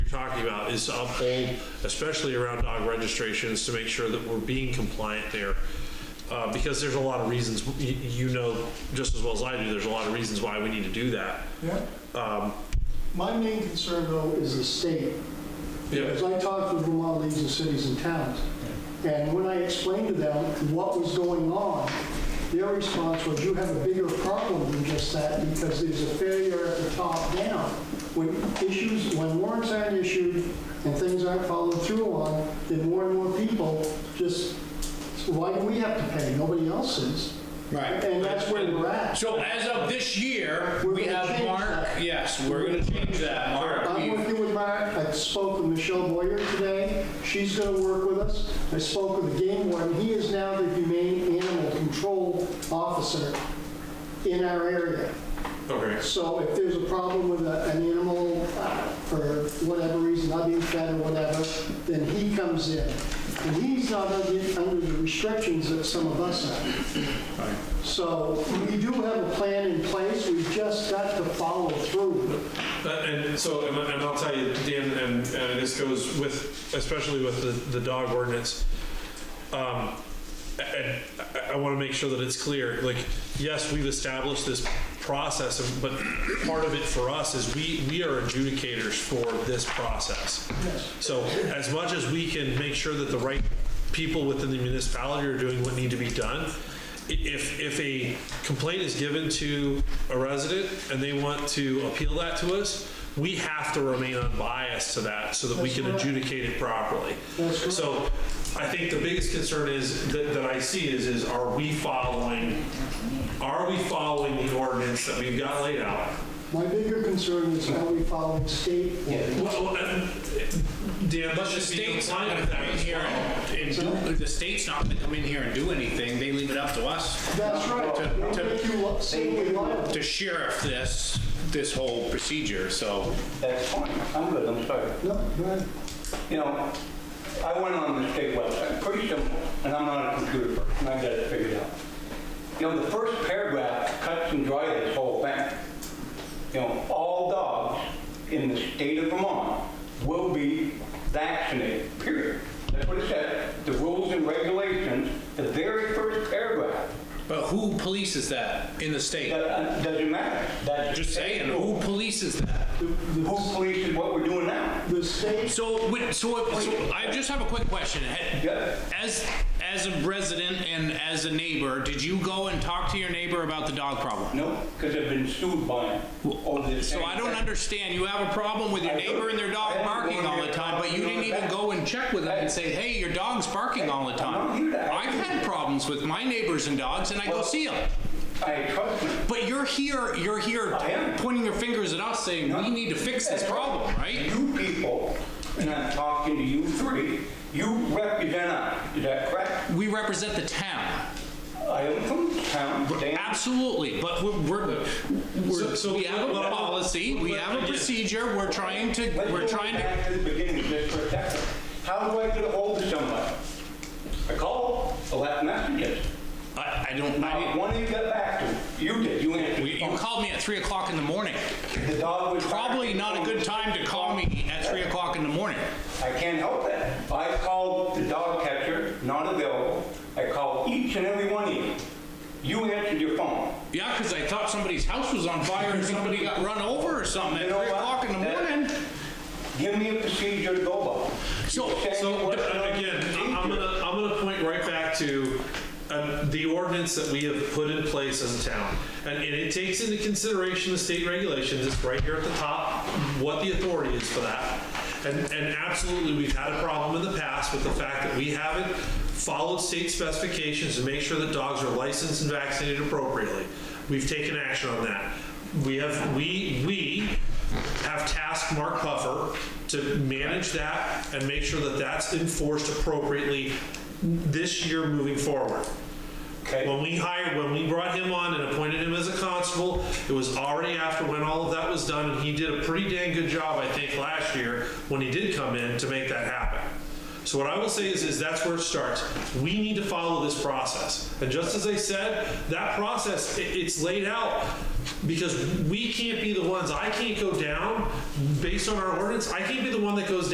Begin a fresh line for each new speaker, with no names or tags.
talking about is to uphold, especially around dog registrations, to make sure that we're being compliant there. Uh, because there's a lot of reasons, you, you know, just as well as I do, there's a lot of reasons why we need to do that.
Yeah. My main concern, though, is the state.
Yeah.
Because I talked with Vermont leagues of cities and towns, and when I explained to them what was going on, their response was, you have a bigger problem than just that, because there's a failure at the top down. When issues, when warrants aren't issued and things aren't followed through on, then more and more people just, why do we have to pay? Nobody else is.
Right.
And that's where we're at.
So as of this year,
We're
we
gonna
have
change
Mark,
that.
yes, we're gonna change that, Mark.
I'm
We've-
working with Mark, I spoke with Michelle Boyer today, she's gonna work with us. I spoke with the game warden, he is now the humane animal control officer in our area.
Okay.
So if there's a problem with a- an animal uh, for whatever reason, not being fed or whatever, then he comes in. And he's not under under the restrictions that some of us are. So we do have a plan in place, we've just got to follow through.
Uh, And so, and and I'll tell you, Dan, and uh, this goes with, especially with the, the dog ordinance. Um, And I, I want to make sure that it's clear, like, yes, we've established this process, of- but part of it for us is we, we are adjudicators for this process. So as much as we can make sure that the right people within the municipality are doing what need to be done, i- if, if a complaint is given to a resident and they want to appeal that to us, we have to remain unbiased to that so that we can adjudicate it properly. So I think the biggest concern is, that, that I see is, is are we following, are we following the ordinance that we've got laid out?
My bigger concern is how we follow state law.
Well, well, and, Dan,
But
let's
the
just be
state's not
compliant
gonna
with
come in
that.
here and, and do- the state's not gonna come in here and do anything, they leave it up to us.
That's right. They
To- to-
make you look silly liable.
To sheriff this, this whole procedure, so.
That's fine, I'm good, I'm sorry.
No, go ahead.
You know, I went on the state website, pretty simple, and I'm not a computer person, I got it figured out. You know, the first paragraph cuts and dries this whole thing. You know, all dogs in the state of Vermont will be vaccinated, period. That's what it says, the rules and regulations, the very first paragraph.
But who polices that in the state?
That uh, doesn't matter, that's
Just saying, who polices that?
who polices what we're doing now.
The state,
So, wait, so, if- so I just have a quick question. Had-
Yeah.
As, as a resident and as a neighbor, did you go and talk to your neighbor about the dog problem?
No, because I've been sued by them over this.
So
same
I don't
thing.
understand, you have a problem with your
I do.
neighbor and their
I
dog
am
barking
going
all
to
the
your
time,
dog
but you didn't
barking
even
all the
go and check with them and say, hey, your dog's barking all the
not
time.
here to ask
I've
you.
had problems with my neighbors and dogs, and I go
Well-
see them.
I trust them.
But you're here, you're here
I am.
pointing your fingers at us saying, we need to fix this problem, right?
You people, and I'm talking to you three, you represent us, is that correct?
We represent the town.
I am from the town, Dan.
Absolutely, but we're, we're, we're-
So-
we have a
so-
policy, we have a procedure, we're trying to,
Let's
we're
go
trying to,
back to the beginning just for a second. How do I get a hold of somebody? I call, I left messages.
I, I don't, I
Not
didn't-
one of you got back to me. You did, you answered.
you you
the
called me at three o'clock in the morning.
phone. The dog was.
Probably not a good time to call me at three o'clock in the morning.
I can't help that. I called the dog catcher, not available. I called each and every one of you. You answered your phone.
Yeah, because I thought somebody's house was on fire and somebody got run over or something at
You know
three
what?
o'clock in the
That-
morning.
Give me a procedure to go by.
So,
So, uh, again, I- I'm gonna, I'm gonna point right back to um, the ordinance that we have put in place as a town. And and it takes into consideration the state regulations, it's right here at the top, what the authority is for that. And, and absolutely, we've had a problem in the past with the fact that we haven't followed state specifications to make sure that dogs are licensed and vaccinated appropriately. We've taken action on that. We have, we, we have tasked Mark Puffer to manage that and make sure that that's enforced appropriately this year moving forward.
Okay.
When we hired, when we brought him on and appointed him as a constable, it was already after when all of that was done, and he did a pretty dang good job, I think, last year when he did come in to make that happen. So what I will say is, is that's where it starts. We need to follow this process, and just as I said, that process, i- it's laid out because we can't be the ones, I can't go down based on our ordinance, I can't be the one that goes down